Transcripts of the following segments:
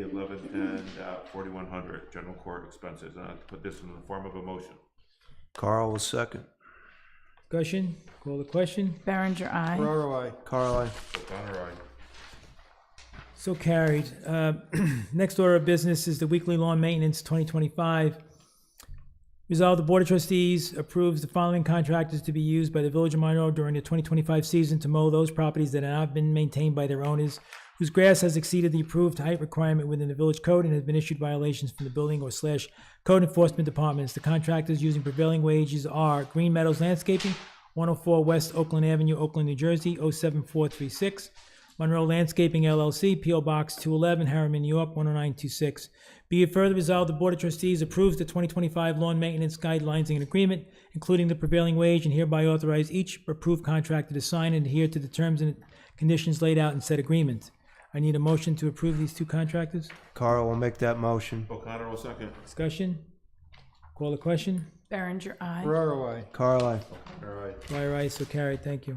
eleven ten dot forty-one hundred, general court expenses, and I'll put this in the form of a motion. Carl will second. Discussion, call the question, Berenger, aye. Ferraro, I. Carl, I. O'Connor, aye. so carried. Uh, Next order of business is the weekly lawn maintenance 2025. Resolve the Board of Trustees approves the following contractors to be used by the Village of Monroe during the 2025 season to mow those properties that have not been maintained by their owners, whose grass has exceeded the approved height requirement within the village code and has been issued violations from the building or slash code enforcement departments. The contractors using prevailing wages are Green Meadows Landscaping, 104 West Oakland Avenue, Oakland, New Jersey, 07436, Monroe Landscaping LLC, PO Box 211, Harriman, New York 10926. Be it further resolved, the Board of Trustees approves the 2025 lawn maintenance guidelines and agreement, including the prevailing wage, and hereby authorize each approved contractor to sign and adhere to the terms and conditions laid out in said agreement. I need a motion to approve these two contractors. Carl will make that motion. O'Connor will second. Discussion? Call the question? Berenger, aye. Ferraro, I. Carl, I. Dwyer, aye, so carried, thank you.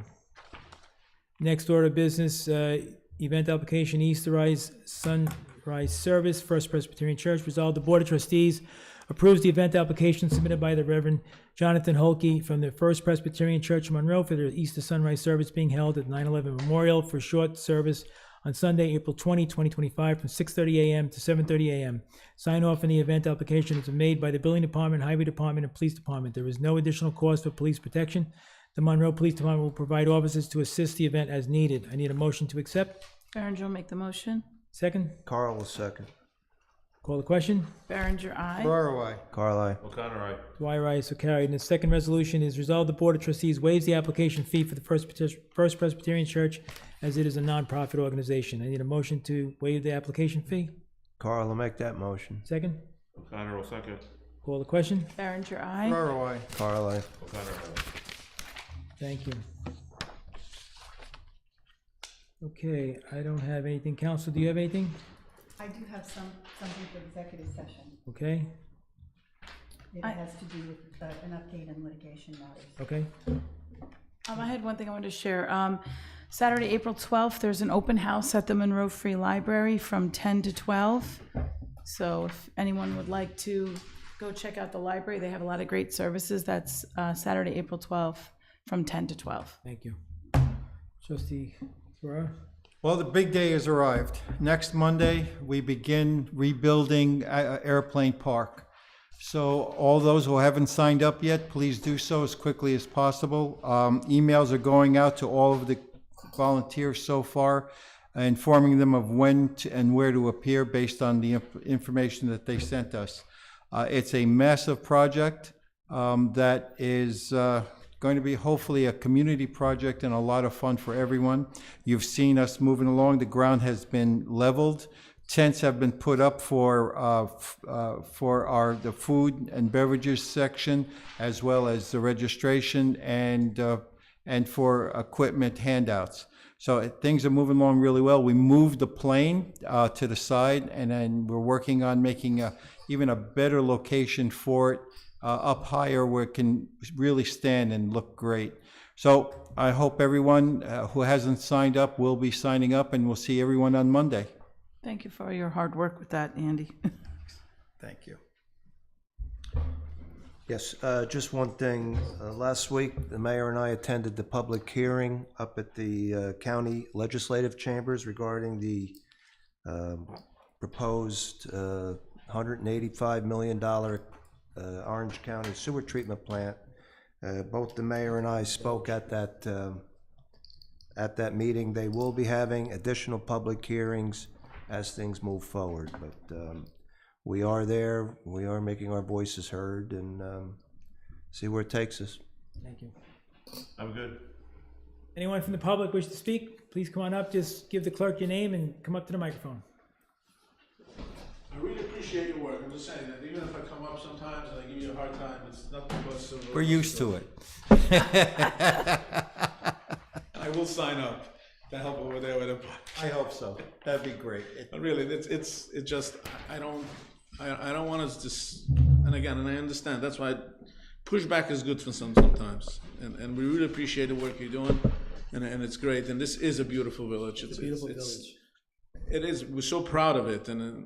Next order of business, uh, event application Easterized Sunrise Service, First Presbyterian Church. Resolved, the Board of Trustees approves the event application submitted by the Reverend Jonathan Holkey from the First Presbyterian Church of Monroe for their Easter Sunrise Service being held at 9/11 Memorial for short service on Sunday, April 20, 2025, from 6:30 a.m. to 7:30 a.m. Sign off on the event application is made by the Building Department, Highway Department, and Police Department. There is no additional cost for police protection. The Monroe Police Department will provide officers to assist the event as needed. I need a motion to accept. Berenger will make the motion. Second, Carl will second. call the question. Berenger, aye. Ferraro, I. Carl, I. O'Connor, aye. Dwyer, aye, so carried. And the second resolution is resolved, the Board of Trustees waives the application fee for the First Pres- First Presbyterian Church as it is a nonprofit organization. I need a motion to waive the application fee. Carl will make that motion. Second, O'Connor will second. call the question. Berenger, aye. Ferraro, I. Carl, I. O'Connor, aye. Thank you. Okay, I don't have anything. Council, do you have anything? I do have some, something for executive session. Okay, It I- has to do with uh, an update on litigation matters. okay. Um, I had one thing I wanted to share. Um, Saturday, April 12th, there's an open house at the Monroe Free Library from 10 to 12. So if anyone would like to go check out the library, they have a lot of great services. That's uh, Saturday, April 12th, from 10 to 12. Thank you. Trustee Ferrara? Well, the big day has arrived. Next Monday, we begin rebuilding uh, Airplane Park. So all those who haven't signed up yet, please do so as quickly as possible. Um, Emails are going out to all of the volunteers so far, informing them of when to- and where to appear based on the inf- information that they sent us. Uh, It's a massive project um, that is uh, going to be hopefully a community project and a lot of fun for everyone. You've seen us moving along. The ground has been leveled. Tents have been put up for uh, f- uh, for our the food and beverages section, as well as the registration and uh, and for equipment handouts. So uh, things are moving along really well. We moved the plane uh, to the side, and then we're working on making a, even a better location for it uh, up higher where it can really stand and look great. So I hope everyone uh, who hasn't signed up will be signing up, and we'll see everyone on Monday. Thank you for your hard work with that, Andy. Thank you. Yes, uh, just one thing. Uh, Last week, the mayor and I attended the public hearing up at the uh, county legislative chambers regarding the um, proposed uh, $185 million uh, Orange County sewer treatment plant. Uh, Both the mayor and I spoke at that, um, at that meeting. They will be having additional public hearings as things move forward, but um, we are there, we are making our voices heard, and um, see where it takes us. Thank you. I'm good. Anyone from the public wish to speak, please come on up. Just give the clerk your name and come up to the microphone. I really appreciate your work. I'm just saying that even if I come up sometimes and I give you a hard time, it's nothing but civil. We're used to it. I will sign up to help over there with it. but- I hope so. That'd be great. But really, it's it's it just I I don't I, I don't want us to. s- And again, and I understand that's why pushback is good for some sometimes. And and we really appreciate the work you're doing, and and it's great. And this is a beautiful village. It's, a beautiful village. It is. We're so proud of it, and. uh,